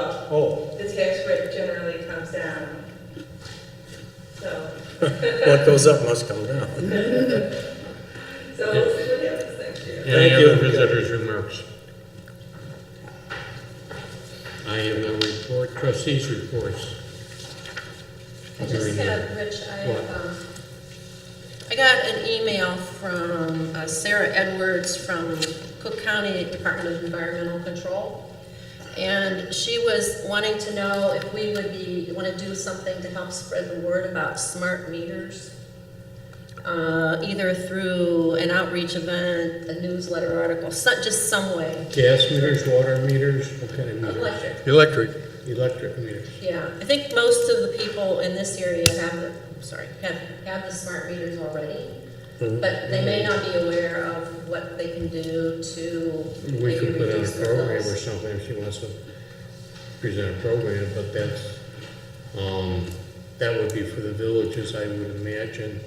Oh. the tax rate generally comes down. So, What goes up must come down. so we'll see what happens next year. Thank Any you. other visitors' remarks? I have no report, trustees' reports. I just had, Rich, I have, um, I got an email from uh, Sarah Edwards from Cook County Department of Environmental Control. And she was wanting to know if we would be, want to do something to help spread the word about smart meters. Uh, either through an outreach event, a newsletter article, so- just some way. Gas meters, water meters, what kind of meters? Electric. Electric. Electric meters. Yeah, I think most of the people in this area have the, I'm sorry, have, have the smart meters already. But they may not be aware of what they can do to We maybe could put on a reduce the program or bills. something if she wants to present a program, but that's, um, that would be for the villages, I would imagine.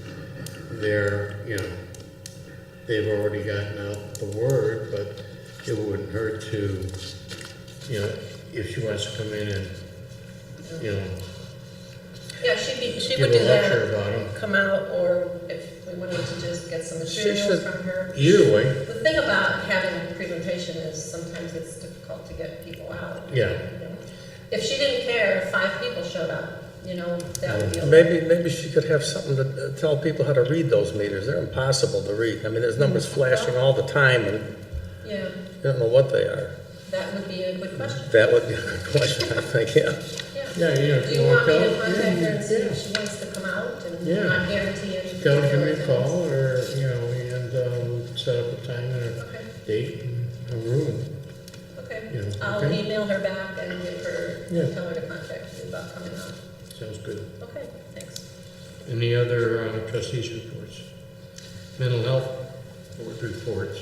They're, you know, they've already gotten out the word, but it wouldn't hurt to, you know, if she wants to come in and, you know, Yeah, she'd be, she give would a do lecture that, about them. come out, or if we wanted to just get some She materials should- from her. Either way, The thing about having a presentation is sometimes it's difficult to get people out. yeah, you know. If she didn't care, if five people showed up, you know, that would be okay. Maybe, maybe she could have something to uh, tell people how to read those meters. They're impossible to read. I mean, there's numbers Mm. flashing all the time and Yeah, you don't know what they are. that would be a good question, That would be a good question, I think, yeah. yeah. yeah, you know, if Do you you want want me to. to contact her and see yeah. if she wants to come out Yeah. and not guarantee any? Tell her, give me a particular call, or, you know, and, um, set up a time and things? a date and a room. Okay, Yeah, okay. I'll okay. email her back and give her, Yeah. tell her to contact you about coming out. Sounds good. Okay, thanks. Any other uh, trustees' reports? Mental health board reports?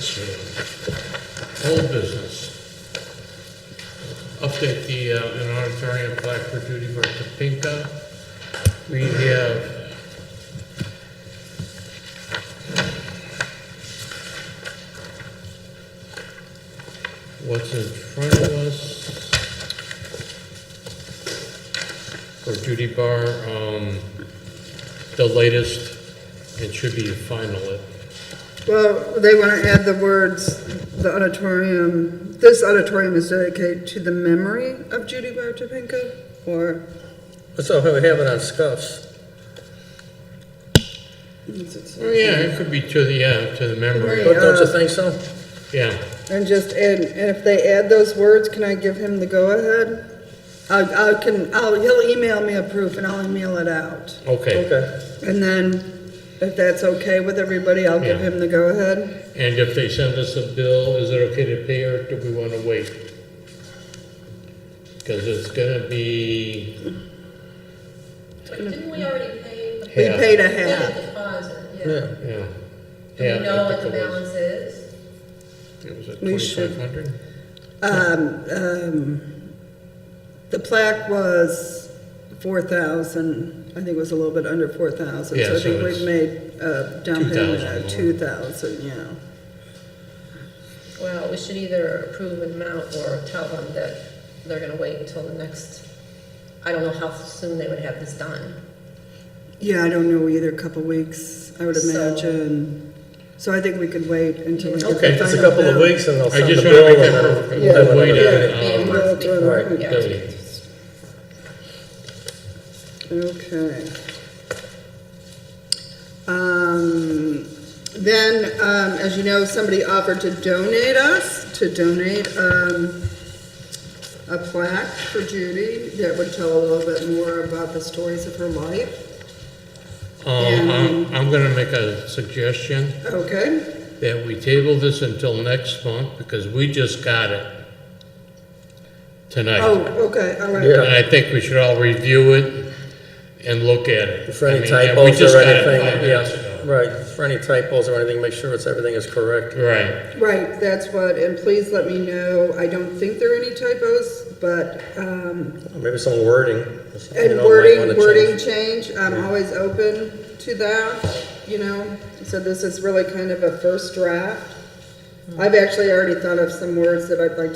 So, Uh, Old business. Update the, uh, an auditorium plaque for Judy Bartopinka. We have what's in front of us for Judy Bar, um, the latest, it should be final, it- Well, they want to add the words, the auditorium, this auditorium is dedicated to the memory of Judy Bartopinka, or So if we have it on scuffs, is it- oh yeah, it could be to the, yeah, to the memory, don't don't you think so? yeah. and just add, and if they add those words, can I give him the go-ahead? I, I can, I'll, he'll email me a proof and I'll email it out. Okay, Okay. And then, if that's okay with everybody, I'll give Yeah. him the go-ahead. and if they send us a bill, is it okay to pay or do we wanna wait? Cause it's gonna be But didn't we already pay? the- We Yeah. paid a Yeah, half. the deposit, yeah. Yeah. yeah. Do we know what the balance is? It was at We should- twenty-five hundred? Um, um, the plaque was four thousand, I think it was a little bit under four thousand, Yeah, so I so think it's we made a down payment 2,000 more. of two thousand, yeah. Well, we should either approve an amount or tell them that they're gonna wait until the next, I don't know how soon they would have this done. Yeah, I don't know either, a couple weeks, I would So- imagine, so I think we could wait until we get the final Okay, just a couple of bill. weeks and they'll I send the just wanna make bill and that then- Yeah. then whatever. Yeah. Yeah, Be a month Um, we'll do it. before, Okay. yeah. Okay. Um, then, um, as you know, somebody offered to donate us, to donate, um, a plaque for Judy that would tell a little bit more about the stories of her life. Um, I'm, I'm gonna make a suggestion. Okay, that we table this until next month because we just got it oh, tonight. okay, all right. Yeah. And I think we should all review it and look at it. For I any mean, yeah, we typos just or got it five anything, minutes yeah, ago. right, for any typos or anything, make sure it's, everything is correct. Right, Right, that's what, and please let me know, I don't think there are any typos, but, um, Maybe some wording. you know, And might wanna wording, change. wording change, I'm always open to that, you know, so this is really kind of a first draft. I've actually already thought of some words that I'd like